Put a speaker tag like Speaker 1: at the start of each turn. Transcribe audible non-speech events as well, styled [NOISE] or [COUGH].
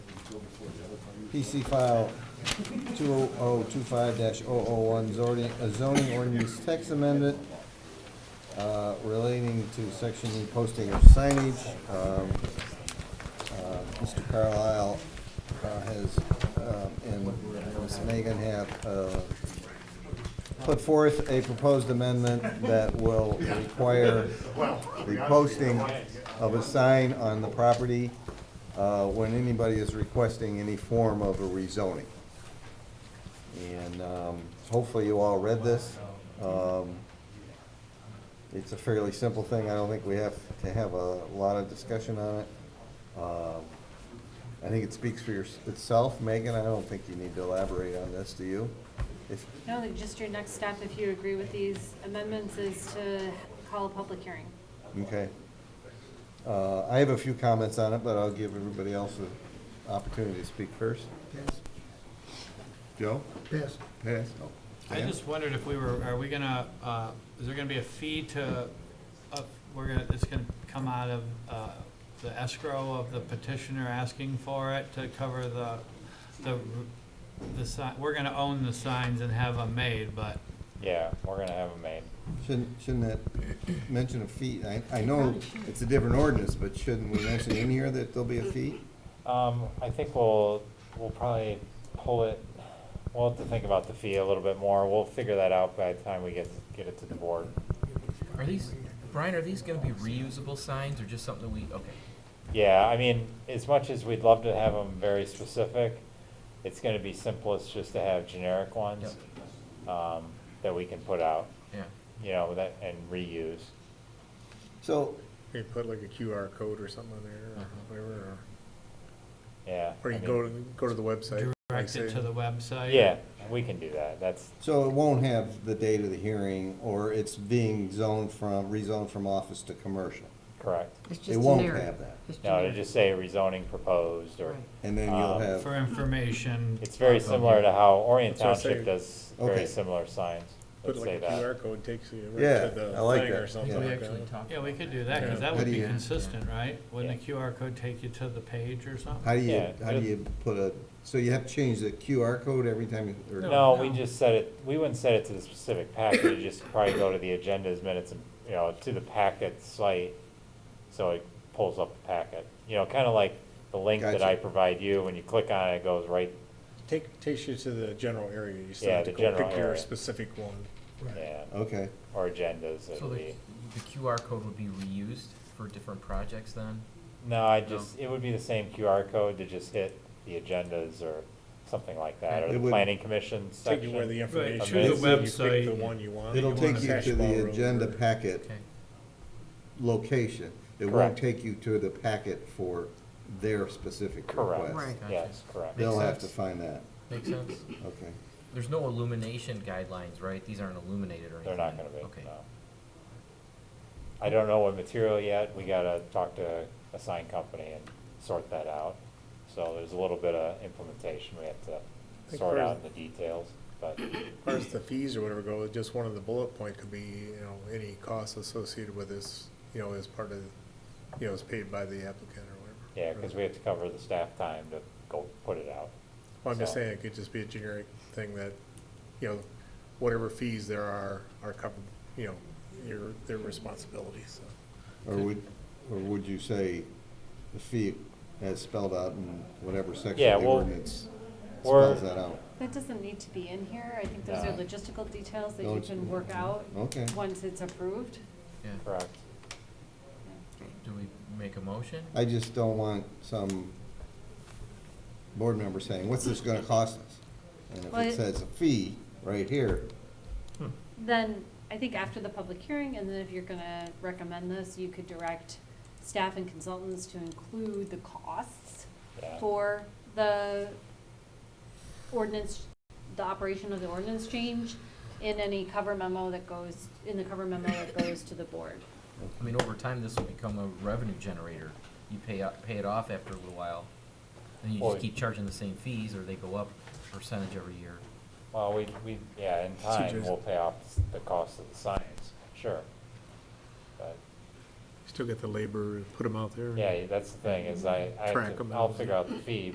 Speaker 1: PC file 20025-001 zoning, uh, zoning ordinance text amendment uh, relating to section E posting of signage. Um, uh, Mr. Carlisle uh, has, um, and Ms. Megan have uh, put forth a proposed amendment that will require the posting of a sign on the property uh, when anybody is requesting any form of a rezoning. And um, hopefully you all read this. Um, It's a fairly simple thing. I don't think we have to have a lot of discussion on it. Um, I think it speaks for your- itself. Megan, I don't think you need to elaborate on this, do you? If,
Speaker 2: No, like, just your next step, if you agree with these amendments, is to call a public hearing.
Speaker 1: Okay. Uh, I have a few comments on it, but I'll give everybody else an opportunity to speak first.
Speaker 3: Pass,
Speaker 1: Joe?
Speaker 3: pass.
Speaker 1: Yes.
Speaker 4: I just wondered if we were, are we gonna, uh, is there gonna be a fee to, uh, we're gonna, it's gonna come out of, uh, the escrow of the petitioner asking for it to cover the, the, the sign, we're gonna own the signs and have them made, but,
Speaker 5: Yeah, we're gonna have them made.
Speaker 1: Shouldn't, shouldn't that mention a fee? I, I know it's a different ordinance, but shouldn't we mention in here that there'll be a fee?
Speaker 5: Um, I think we'll, we'll probably pull it, we'll have to think about the fee a little bit more. We'll figure that out by the time we get, get it to the board.
Speaker 6: Are these, Brian, are these gonna be reusable signs or just something that we, okay.
Speaker 5: Yeah, I mean, as much as we'd love to have them very specific, it's gonna be simplest just to have generic ones, um, that we can put out,
Speaker 6: Yeah,
Speaker 5: you know, that, and reuse.
Speaker 1: So,
Speaker 7: You put like a QR code or something on there, or whatever, or-
Speaker 5: Yeah.
Speaker 7: or
Speaker 5: I
Speaker 7: you
Speaker 5: mean,
Speaker 7: go, to- go to the website. like
Speaker 4: direct it
Speaker 7: say-
Speaker 4: to the website.
Speaker 5: Yeah, we can do that. That's,
Speaker 1: so it won't have the date of the hearing, or it's being zoned from, rezoned from office to commercial.
Speaker 5: correct.
Speaker 8: It's just
Speaker 1: It won't
Speaker 8: generic.
Speaker 1: have that.
Speaker 8: It's
Speaker 5: No, to
Speaker 8: generic.
Speaker 5: just say rezoning proposed or.
Speaker 8: Right.
Speaker 1: And then you'll
Speaker 5: Um,
Speaker 1: have,
Speaker 4: For information.
Speaker 5: It's very similar to how Orient
Speaker 7: That's what I say.
Speaker 5: Township does
Speaker 1: Okay.
Speaker 5: very similar signs.
Speaker 7: Put
Speaker 5: Let's say
Speaker 7: like a
Speaker 5: that.
Speaker 7: QR code takes you
Speaker 1: Yeah,
Speaker 7: right to
Speaker 1: I
Speaker 7: the
Speaker 1: like
Speaker 7: thing
Speaker 1: that,
Speaker 7: or something
Speaker 1: yeah.
Speaker 6: so we
Speaker 7: like
Speaker 6: actually
Speaker 7: that.
Speaker 6: talk.
Speaker 4: Yeah, we could do that, cause that
Speaker 1: How
Speaker 4: would
Speaker 1: do
Speaker 4: be
Speaker 1: you-
Speaker 4: consistent, right? Wouldn't a
Speaker 5: Yeah.
Speaker 4: QR code take you to the page or something?
Speaker 1: how do you,
Speaker 5: Yeah,
Speaker 1: how do you put a, so you have to change the QR code every time? you- or-
Speaker 5: No, we just set it, we wouldn't set it to the specific packet, you just probably go to the agendas, minutes, and, you know, to the packet site, so it pulls up the packet. You know, kinda like the link that
Speaker 1: Gotcha.
Speaker 5: I provide you, when you click on it, it goes right,
Speaker 7: Take, takes you to the general area, you still
Speaker 5: Yeah,
Speaker 7: have to
Speaker 5: the
Speaker 7: go
Speaker 5: general
Speaker 7: pick your
Speaker 5: area.
Speaker 7: specific one.
Speaker 5: yeah,
Speaker 1: Okay.
Speaker 5: or agendas,
Speaker 6: So
Speaker 5: it'll
Speaker 6: the,
Speaker 5: be.
Speaker 6: the QR code would be reused for different projects then?
Speaker 5: No, I just, it would be the same QR code to just hit the agendas or something like that, or
Speaker 1: It
Speaker 5: the
Speaker 1: would-
Speaker 5: planning commission
Speaker 7: Take you where
Speaker 5: section.
Speaker 7: the information
Speaker 5: to the
Speaker 7: is, and you pick the
Speaker 4: website.
Speaker 7: one you want.
Speaker 1: It'll
Speaker 7: wanna
Speaker 1: take you
Speaker 7: hash
Speaker 1: to
Speaker 7: bar
Speaker 1: the
Speaker 7: room
Speaker 1: agenda
Speaker 7: or-
Speaker 1: packet
Speaker 6: Okay,
Speaker 1: location. It won't
Speaker 5: Correct.
Speaker 1: take you to the packet for their specific
Speaker 5: Correct.
Speaker 1: request.
Speaker 8: Right.
Speaker 5: Yes, correct.
Speaker 1: They'll
Speaker 6: Makes
Speaker 1: have to
Speaker 6: sense.
Speaker 1: find that,
Speaker 6: makes sense.
Speaker 1: okay.
Speaker 6: There's no illumination guidelines, right? These aren't illuminated or anything?
Speaker 5: They're not gonna be,
Speaker 6: Okay.
Speaker 5: no. I don't know what material yet, we gotta talk to a sign company and sort that out. So there's a little bit of implementation we have to
Speaker 7: think
Speaker 5: sort
Speaker 7: for-
Speaker 5: out in the details,
Speaker 7: [COUGHS]
Speaker 5: but,
Speaker 7: As far as the fees or whatever go, just one of the bullet point could be, you know, any costs associated with this, you know, as part of, you know, is paid by the applicant or whatever.
Speaker 5: yeah, cause we have to cover the staff time to go put it out.
Speaker 7: Well, I'm just
Speaker 5: So-
Speaker 7: saying, it could just be a generic thing that, you know, whatever fees there are, are covered, you know, your, their responsibility, so.
Speaker 1: Or would, or would you say the fee as spelled out in whatever section
Speaker 5: Yeah,
Speaker 1: of the
Speaker 5: well,
Speaker 1: ordinance
Speaker 5: we're-
Speaker 1: spells that out?
Speaker 2: That doesn't need to be in here, I think those are
Speaker 5: No.
Speaker 2: logistical details that
Speaker 1: No,
Speaker 2: you
Speaker 1: it's-
Speaker 2: can work out
Speaker 1: Okay.
Speaker 2: once it's approved.
Speaker 6: Yeah,
Speaker 5: Correct.
Speaker 6: do we make a motion?
Speaker 1: I just don't want some board member saying, what's this gonna cost us? And if
Speaker 2: Well,
Speaker 1: it
Speaker 2: it-
Speaker 1: says a fee right here,
Speaker 2: Then, I think after the public hearing, and then if you're gonna recommend this, you could direct staff and consultants to include the costs
Speaker 5: Yeah.
Speaker 2: for the ordinance, the operation of the ordinance change in any cover memo that goes, in the cover memo that goes to the board.
Speaker 6: I mean, over time, this will become a revenue generator. You pay, up- pay it off after a little while, and you
Speaker 5: Well,
Speaker 6: just keep charging the same fees, or they go up percentage every year.
Speaker 5: Well, we, we, yeah, in time,
Speaker 7: just-
Speaker 5: we'll pay off the cost of the signs, sure. But,
Speaker 7: Still get the labor, put them out there.
Speaker 5: yeah, that's the thing, is I, I, have
Speaker 7: Track
Speaker 5: to-
Speaker 7: 'em
Speaker 5: I'll
Speaker 7: and-
Speaker 5: figure out the fee,